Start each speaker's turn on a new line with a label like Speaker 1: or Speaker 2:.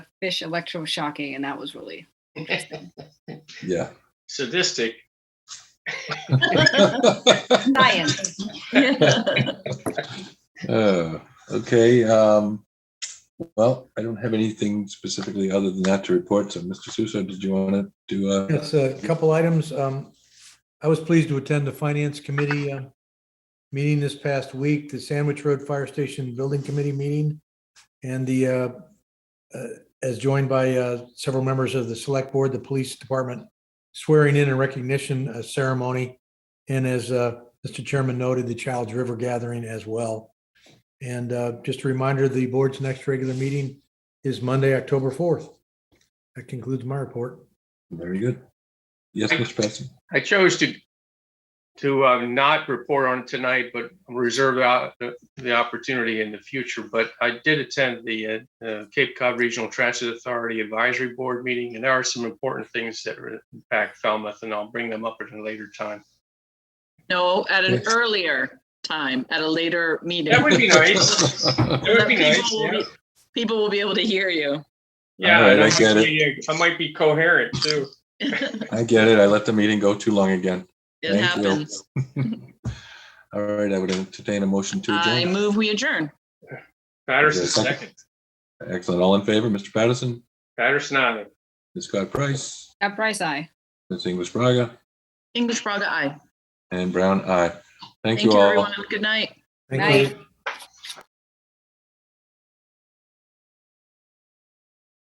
Speaker 1: fish electroshocking, and that was really
Speaker 2: Yeah.
Speaker 3: Sadistic.
Speaker 1: science.
Speaker 2: Uh, Okay, um, well, I don't have anything specifically other than that to report. So Mr. Suso, did you want to do, uh,
Speaker 4: Yes, a couple items. Um, I was pleased to attend the Finance Committee uh, meeting this past week, the Sandwich Road Fire Station Building Committee meeting, and the, uh, uh, as joined by uh, several members of the Select Board, the Police Department swearing in and recognition uh, ceremony, and as uh, Mr. Chairman noted, the Child's River Gathering as well. And uh, just a reminder, the board's next regular meeting is Monday, October 4th. That concludes my report.
Speaker 2: very good. Yes, Mr. Preston?
Speaker 3: I chose to to uh, not report on it tonight, but reserve out the, the opportunity in the future. But I did attend the uh, uh, Cape Cod Regional Transit Authority Advisory Board meeting, and there are some important things that are impact Falmouth, and I'll bring them up at a later time.
Speaker 5: No, at an
Speaker 2: Yes.
Speaker 5: earlier time, at a later meeting.
Speaker 3: That would be nice.
Speaker 2: All
Speaker 3: It would be
Speaker 5: People
Speaker 3: nice.
Speaker 5: will
Speaker 3: yeah.
Speaker 5: be- People will be able to hear you.
Speaker 3: Yeah,
Speaker 2: right,
Speaker 3: and
Speaker 2: I
Speaker 3: might
Speaker 2: get it.
Speaker 3: be, uh, I might be coherent too.
Speaker 2: I get it. I let the meeting go too long again. Thank
Speaker 5: It
Speaker 2: you.
Speaker 5: happens.
Speaker 2: All right, I would entertain a motion to
Speaker 5: I
Speaker 2: adjourn.
Speaker 5: move we adjourn.
Speaker 3: Patterson
Speaker 2: Is there a second?
Speaker 3: second.
Speaker 2: Excellent. All in favor, Mr. Patterson,
Speaker 3: Patterson aye.
Speaker 2: Ms. Scott Price,
Speaker 1: At Price Eye.
Speaker 2: Ms. English Braga,
Speaker 5: English Braga, aye.
Speaker 2: and Brown, aye. Thank
Speaker 5: Thank
Speaker 2: you
Speaker 5: you,
Speaker 2: all.
Speaker 5: everyone. Have a Good night.
Speaker 4: Thank
Speaker 1: Right.
Speaker 4: you.